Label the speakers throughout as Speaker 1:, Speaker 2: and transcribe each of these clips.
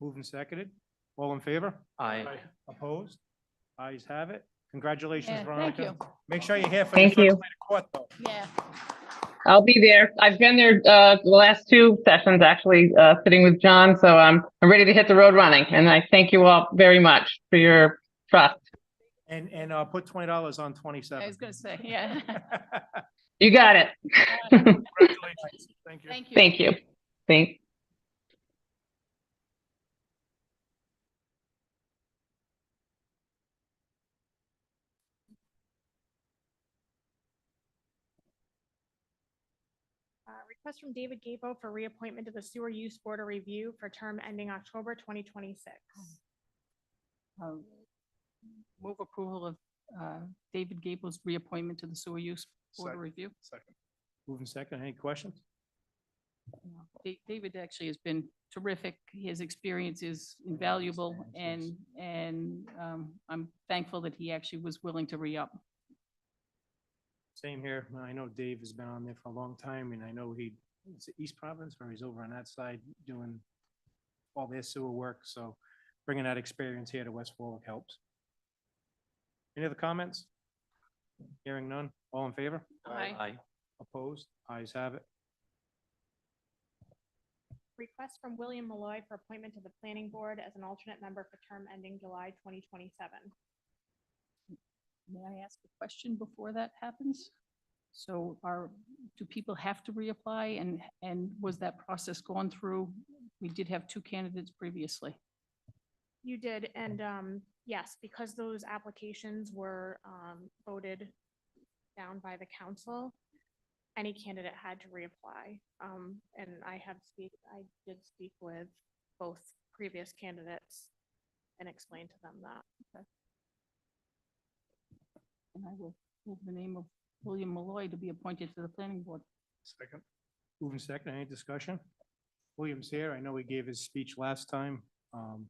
Speaker 1: Moved and seconded. All in favor?
Speaker 2: Aye.
Speaker 1: Opposed? Ayes have it. Congratulations,
Speaker 3: Yeah,
Speaker 1: Veronica.
Speaker 3: Thank you.
Speaker 1: Make sure you're here for the
Speaker 4: Thank
Speaker 1: first night
Speaker 4: you.
Speaker 1: of court, though.
Speaker 3: Yeah,
Speaker 4: I'll be there. I've been there uh, the last two sessions, actually, uh, sitting with John. So I'm, I'm ready to hit the road running. And I thank you all very much for your trust.
Speaker 1: And, and, uh, put twenty dollars on
Speaker 3: I
Speaker 1: twenty-seven.
Speaker 3: was gonna say, yeah.
Speaker 4: You got it.
Speaker 1: Congratulations. Thank you.
Speaker 3: Thank you.
Speaker 4: Thank you. Thanks.
Speaker 5: Uh, Request from David Gabo for reappointment to the Sewer Use Board of Review for term ending October 2026.
Speaker 6: Um, Move approval of uh, David Gable's reappointment to the Sewer Use Board of
Speaker 1: Second.
Speaker 6: Review.
Speaker 1: Moving second, any questions?
Speaker 6: Da- David actually has been terrific. His experience is invaluable and,
Speaker 1: experience,
Speaker 6: and um, I'm thankful that he actually was willing to re-up.
Speaker 1: Same here. I know Dave has been on there for a long time and I know he, it's East Providence where he's over on that side doing all their sewer work. So bringing that experience here to West Warwick helps. Any other comments? Hearing none. All in favor?
Speaker 6: Aye.
Speaker 1: Opposed? Ayes have it.
Speaker 5: Request from William Malloy for appointment to the Planning Board as an alternate member for term ending July 2027.
Speaker 6: May I ask a question before that happens? So are, do people have to reapply and, and was that process gone through? We did have two candidates previously.
Speaker 5: You did, and um, yes, because those applications were um, voted down by the council, any candidate had to reapply. Um, And I have speak, I did speak with both previous candidates and explained to them that.
Speaker 6: And I will move the name of William Malloy to be appointed to the planning board.
Speaker 1: Second. Moving second, any discussion? William's here. I know he gave his speech last time. Um,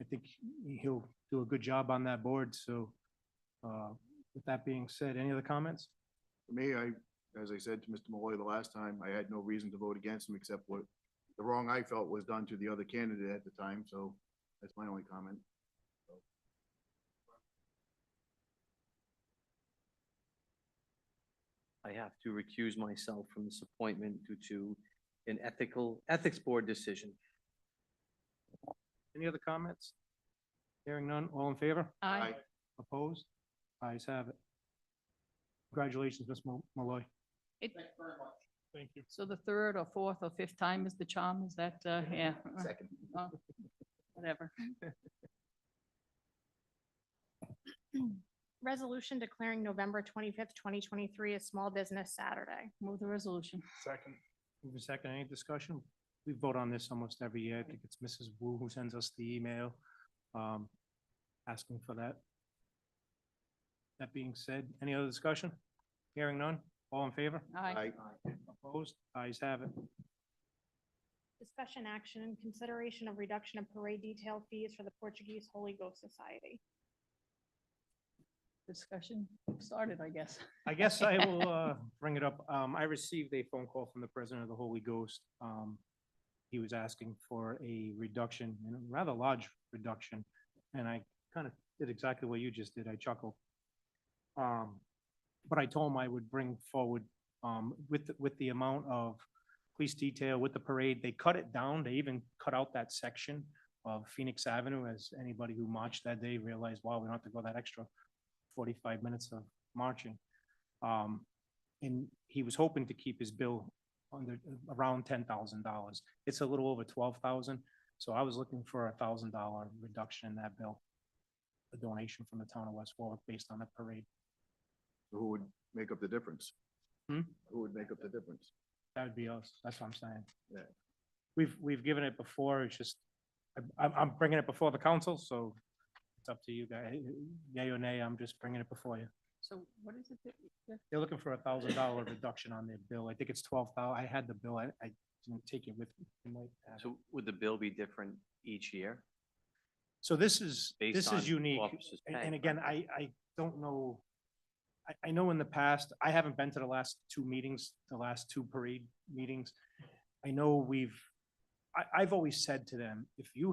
Speaker 1: I think he- he'll do a good job on that board, so, uh, with that being said, any other comments?
Speaker 7: For me, I, as I said to Mr. Malloy the last time, I had no reason to vote against him except what the wrong I felt was done to the other candidate at the time, so that's my only comment.
Speaker 2: I have to recuse myself from this appointment due to an ethical, ethics board decision.
Speaker 1: Any other comments? Hearing none, all in favor?
Speaker 6: Aye.
Speaker 1: Opposed? Ayes have it. Congratulations, Ms. Mal- Malloy.
Speaker 6: It-
Speaker 1: Thank you.
Speaker 6: So the third or fourth or fifth time is the charm, is that, uh, yeah, uh,
Speaker 2: Second.
Speaker 6: whatever.
Speaker 5: Resolution declaring November twenty-fifth, twenty twenty-three as Small Business Saturday.
Speaker 6: Move the resolution.
Speaker 1: Second. Moving second, any discussion? We vote on this almost every year. I think it's Mrs. Wu who sends us the email, um, asking for that. That being said, any other discussion? Hearing none, all in favor?
Speaker 6: Aye.
Speaker 1: Opposed? Ayes have it.
Speaker 5: Discussion action and consideration of reduction of parade detail fees for the Portuguese Holy Ghost Society.
Speaker 6: Discussion started, I guess.
Speaker 1: I guess I will uh, bring it up. Um, I received a phone call from the president of the Holy Ghost. Um, He was asking for a reduction, and a rather large reduction, and I kind of did exactly what you just did. I chuckled. Um, But I told him I would bring forward um, with, the- with the amount of police detail, with the parade, they cut it down. They even cut out that section of Phoenix Avenue, as anybody who marched that day realized, wow, we don't have to go that extra 45 minutes of marching. Um, and he was hoping to keep his bill under, around ten thousand dollars. It's a little over twelve thousand, so I was looking for a thousand dollar reduction in that bill. A donation from the town of West Warwick based on the parade.
Speaker 7: So Who would make up the difference?
Speaker 1: Hmm?
Speaker 7: Who would make up the difference?
Speaker 1: That would be us. That's what I'm saying.
Speaker 7: Yeah.
Speaker 1: We've, we've given it before. It's just, I- I'm, I'm bringing it before the council, so it's up to you guys. Yay or nay, I'm just bringing it before you.
Speaker 6: So what is it? that- that-
Speaker 1: They're looking for a thousand dollar reduction on their bill. I think it's twelve thousand. I had the bill. I, I didn't take it with me. I might have it.
Speaker 2: So would the bill be different each year?
Speaker 1: So this is,
Speaker 2: based
Speaker 1: this
Speaker 2: on eh, uh,
Speaker 1: is unique.
Speaker 2: officers'
Speaker 1: And-
Speaker 2: pay,
Speaker 1: And again,
Speaker 2: right?
Speaker 1: I, I don't know. I, I know in the past, I haven't been to the last two meetings, the last two parade meetings. I know we've, I, I've always said to them, if you